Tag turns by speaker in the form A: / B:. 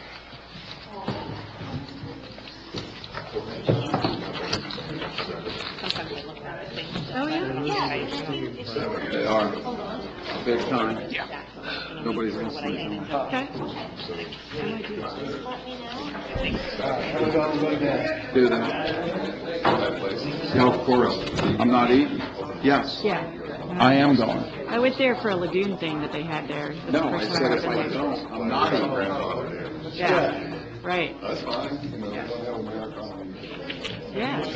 A: Oh, yeah?
B: They are, big time. Yeah. Nobody's gonna sleep on them.
A: Okay.
B: Do that. No, of course, I'm not eating, yes,
A: Yeah.
B: I am going.
A: I was there for a lagoon thing that they had there. That's the
B: No, I
A: first
B: said
A: time I've
B: if
A: been
B: I
A: there.
B: don't, I'm not eating.
A: Yeah, right,
B: That's fine.
A: yeah.